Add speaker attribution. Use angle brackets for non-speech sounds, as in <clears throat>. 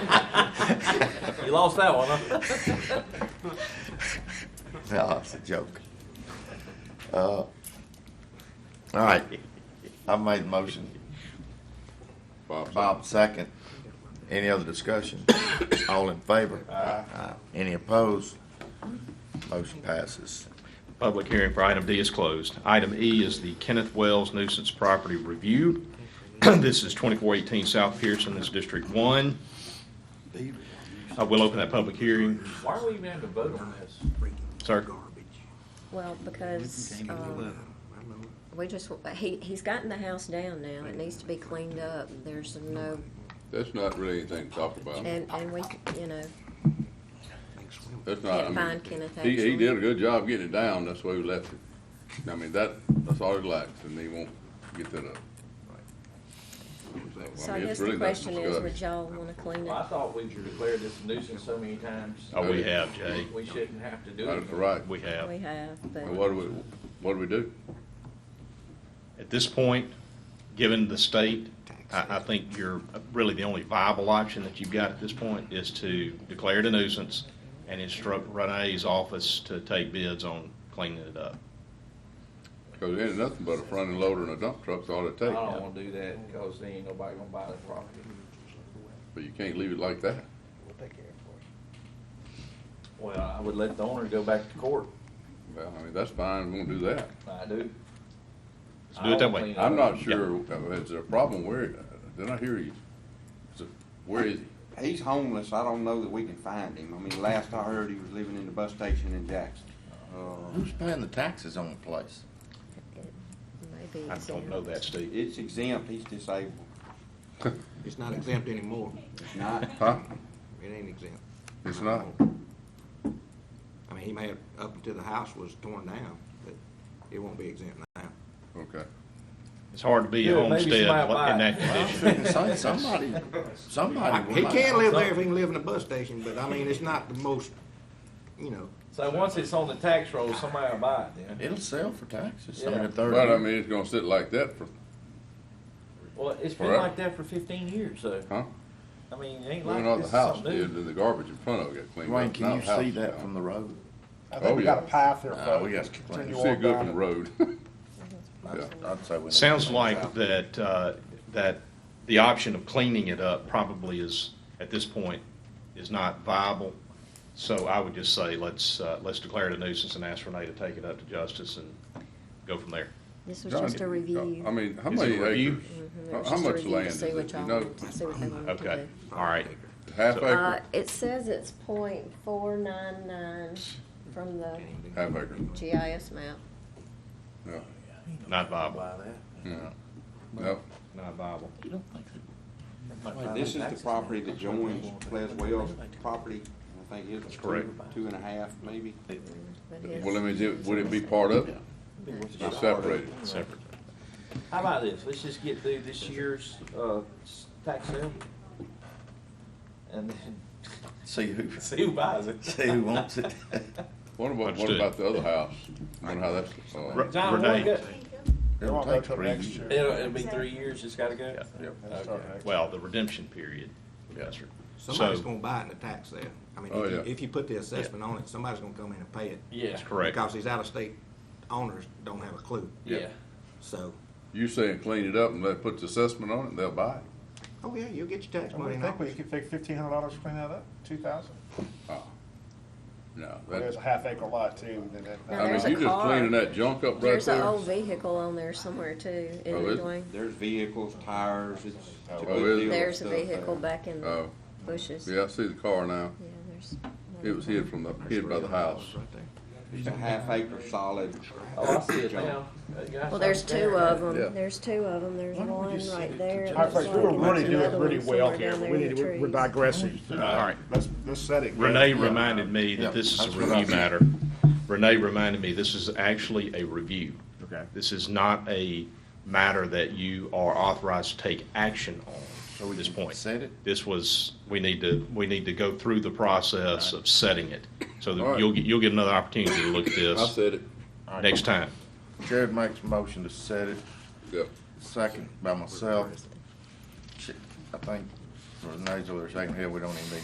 Speaker 1: <laughs> You lost that one, huh?
Speaker 2: <laughs> No, it's a joke. Uh, All right, I made the motion. Bob second. Any other discussion? All in favor? Aye. Any opposed? Motion passes.
Speaker 3: Public hearing for item D is closed. Item E is the Kenneth Wells nuisance property review. <clears throat> This is 2418 South Pearson, this is District 1. I will open that public hearing,
Speaker 1: <laughs> Why are we even having to vote on this?
Speaker 3: sir.
Speaker 4: Well, because, um, we just, he, he's gotten the house down now, it needs to be cleaned up, there's no,
Speaker 5: That's not really anything to talk about.
Speaker 4: and, and we, you know,
Speaker 5: That's not, I
Speaker 4: can't
Speaker 5: mean,
Speaker 4: find Kenneth
Speaker 5: he, he did
Speaker 4: actually.
Speaker 5: a good job getting it down, that's why we left it. I mean, that, that's all it lacks, and he won't get that up.
Speaker 4: So
Speaker 5: I
Speaker 4: I
Speaker 5: mean,
Speaker 4: guess
Speaker 5: it's
Speaker 4: the
Speaker 5: really nothing
Speaker 4: question
Speaker 5: to
Speaker 4: is,
Speaker 5: discuss.
Speaker 4: would y'all wanna clean
Speaker 1: Well, I
Speaker 4: it?
Speaker 1: thought we've declared this a nuisance so many times,
Speaker 3: Oh, we have, Jay.
Speaker 1: we shouldn't have to do it.
Speaker 5: That's right.
Speaker 3: We
Speaker 4: We
Speaker 3: have.
Speaker 4: have, but,
Speaker 5: Well, what do we, what do we do?
Speaker 3: At this point, given the state, I, I think you're, really the only viable option that you've got at this point is to declare it a nuisance and instruct Renee's office to take bids on cleaning it up.
Speaker 5: Cause it ain't nothing but a front end loader and a dump truck's all it
Speaker 1: I
Speaker 5: takes,
Speaker 1: don't wanna do that, cause then ain't nobody gonna buy the property.
Speaker 5: but you can't leave it like that.
Speaker 1: Well, I would let the owner go back to court,
Speaker 5: Well, I mean, that's fine, we won't do that.
Speaker 1: I do.
Speaker 3: Let's do it that way.
Speaker 5: I'm not sure, uh, is there a problem where, uh, did I hear you? Is it- Where is he?
Speaker 6: He's homeless. I don't know that we can find him. I mean, last I heard, he was living in the bus station in Jackson. Uh,
Speaker 2: Who's paying the taxes on the place?
Speaker 4: maybe.
Speaker 3: I
Speaker 4: it's uh,
Speaker 3: don't know that, Steve.
Speaker 6: it's exempt. He's disabled.
Speaker 7: It's not exempt anymore.
Speaker 6: It's not.
Speaker 5: Huh?
Speaker 7: It ain't exempt.
Speaker 5: It's not?
Speaker 7: I mean, he may have, up until the house was torn down, but it won't be exempt now.
Speaker 5: Okay.
Speaker 3: It's hard to be
Speaker 1: Yeah, maybe
Speaker 3: a homestead in
Speaker 1: somebody buy
Speaker 3: that
Speaker 1: it.
Speaker 3: condition.
Speaker 2: Shouldn't say somebody, somebody. would
Speaker 7: He
Speaker 2: like-
Speaker 7: can live there if he can live in a bus station, but I mean, it's not the most, you know,
Speaker 1: So once it's on the tax roll, somebody will buy it then.
Speaker 2: It'll sell for taxes, I mean,
Speaker 1: Yeah.
Speaker 2: if they're-
Speaker 5: But I mean, it's gonna sit like that for,
Speaker 1: Well, it's been
Speaker 5: Forever.
Speaker 1: like that for fifteen years, so,
Speaker 5: huh?
Speaker 1: I mean, it ain't
Speaker 5: Well,
Speaker 1: like
Speaker 5: not
Speaker 1: this
Speaker 5: the
Speaker 1: is
Speaker 5: house
Speaker 1: something new.
Speaker 5: did, then the garbage in front of it got cleaned up.
Speaker 2: Wayne,
Speaker 5: Now
Speaker 2: can you
Speaker 5: the house
Speaker 2: see
Speaker 5: is
Speaker 2: that
Speaker 5: down.
Speaker 2: from the road?
Speaker 8: I
Speaker 5: Oh,
Speaker 8: think we
Speaker 5: yeah.
Speaker 8: got a path there,
Speaker 2: Nah,
Speaker 8: folks.
Speaker 2: Uh, we got
Speaker 8: Just
Speaker 2: to-
Speaker 5: You
Speaker 8: continue
Speaker 5: see it
Speaker 8: on
Speaker 5: good from the
Speaker 8: down.
Speaker 5: road. Yeah.
Speaker 2: I'd say we. need-
Speaker 3: Sounds like that, uh, that the option of cleaning it up probably is, at this point, is not viable. So I would just say, let's, uh, let's declare it a nuisance and ask Renee to take it up to justice and go from there.
Speaker 4: This was just a review.
Speaker 5: I mean, how
Speaker 3: Is
Speaker 5: many
Speaker 3: it a review?
Speaker 5: acres?
Speaker 4: Mhm, it
Speaker 5: How
Speaker 4: was
Speaker 5: uh,
Speaker 4: just
Speaker 5: how
Speaker 4: a
Speaker 5: much
Speaker 4: review to
Speaker 5: land is
Speaker 4: see what
Speaker 5: it? You
Speaker 4: y'all
Speaker 5: know,
Speaker 4: wanted- to See what they wanted to
Speaker 3: Okay,
Speaker 4: do.
Speaker 3: all right.
Speaker 5: half
Speaker 3: So-
Speaker 4: Uh,
Speaker 5: acre,
Speaker 4: it says it's point four nine nine from the
Speaker 5: half acre.
Speaker 4: GIS map.
Speaker 5: No,
Speaker 3: Not viable,
Speaker 5: no.
Speaker 3: not viable.
Speaker 6: This is the property that joins Pleasant Wells' property. I think it's
Speaker 3: correct.
Speaker 6: two, two and a half, maybe.
Speaker 4: but his-
Speaker 5: Well, I mean, is it- would it be part of it? Or separated?
Speaker 3: Separate.
Speaker 1: How about this, let's just get through this year's, uh, s- tax sale. And then <laughs>
Speaker 2: See who, <laughs>
Speaker 1: see who buys it.
Speaker 2: see
Speaker 1: <laughs>
Speaker 2: who wants it.
Speaker 5: What about, what
Speaker 3: Understood.
Speaker 5: about the other house? Wonder how that's, uh,
Speaker 3: Re-
Speaker 1: John,
Speaker 3: Renee-
Speaker 1: we'll go-
Speaker 8: It
Speaker 2: It'll
Speaker 8: won't go
Speaker 2: take
Speaker 8: till
Speaker 2: three
Speaker 8: next
Speaker 2: years.
Speaker 8: year.
Speaker 1: It'll, it'll be three years, it's gotta go?
Speaker 3: Yeah.
Speaker 8: It'll start next
Speaker 3: Well, the redemption period. Yes, sir.
Speaker 7: somebody's
Speaker 3: So-
Speaker 7: gonna buy it in the tax sale. I mean,
Speaker 5: Oh,
Speaker 7: if you,
Speaker 5: yeah.
Speaker 7: if you put the assessment on it, somebody's gonna come in and pay it.
Speaker 1: Yeah,
Speaker 3: Correct.
Speaker 7: Because these out-of-state owners don't have a clue,
Speaker 1: yeah.
Speaker 7: so,
Speaker 5: you saying clean it up and let, put the assessment on it, and they'll buy it?
Speaker 7: oh yeah, you'll get your tax
Speaker 8: year.
Speaker 7: money
Speaker 8: I
Speaker 7: in
Speaker 8: think we
Speaker 7: August.
Speaker 8: could take fifteen hundred dollars to clean that up, two thousand.
Speaker 5: Oh, No, that's,
Speaker 8: There's a half acre lot too, then that-
Speaker 4: No,
Speaker 5: I mean,
Speaker 4: there's a
Speaker 5: you just
Speaker 4: car.
Speaker 5: cleaning that junk up right
Speaker 4: There's an
Speaker 5: there.
Speaker 4: old vehicle on there somewhere too, isn't
Speaker 5: Oh,
Speaker 4: there,
Speaker 5: is it?
Speaker 4: Dwayne?
Speaker 6: There's vehicles, tires. It's, it's a
Speaker 5: Oh,
Speaker 6: good
Speaker 5: is it?
Speaker 6: deal of
Speaker 4: There's a
Speaker 6: stuff there.
Speaker 4: vehicle back in the
Speaker 5: Oh,
Speaker 4: bushes.
Speaker 5: yeah, I see the car now.
Speaker 4: Yeah, there's.
Speaker 5: It was hid from the, hid by the house.
Speaker 7: Right there.
Speaker 6: It's a half acre solid.
Speaker 1: Oh, I see it
Speaker 6: junk.
Speaker 1: now.
Speaker 4: Well, there's two of
Speaker 5: Yeah.
Speaker 4: them. There's two of them. There's
Speaker 2: Why don't we
Speaker 4: one
Speaker 2: just sit
Speaker 4: right
Speaker 2: it
Speaker 4: there.
Speaker 2: to
Speaker 4: and
Speaker 8: All right,
Speaker 4: there's
Speaker 8: folks, we were
Speaker 4: one- another
Speaker 8: really doing
Speaker 4: one
Speaker 8: really
Speaker 4: somewhere
Speaker 8: well
Speaker 4: down
Speaker 8: here.
Speaker 4: there
Speaker 8: We
Speaker 4: in
Speaker 8: need,
Speaker 4: the
Speaker 8: to- we're
Speaker 4: trees.
Speaker 8: digressing.
Speaker 3: All right.
Speaker 8: Let's, let's set it.
Speaker 3: Renee reminded me that this is a
Speaker 2: Yeah, that's what I
Speaker 3: review
Speaker 2: said.
Speaker 3: matter. Renee reminded me this is actually a review.
Speaker 8: Okay.
Speaker 3: This is not a matter that you are authorized to take action on at this point.
Speaker 2: set it?
Speaker 3: This was, we need to, we need to go through the process of setting it. So
Speaker 5: All
Speaker 3: that
Speaker 5: right.
Speaker 3: you'll, get you'll get another opportunity to look at
Speaker 5: I
Speaker 3: this
Speaker 5: said it,
Speaker 3: next time.
Speaker 2: Jared makes a motion to set it,
Speaker 5: yeah.
Speaker 2: second by myself. Shit, I think Renee's over there shaking her head, we don't even need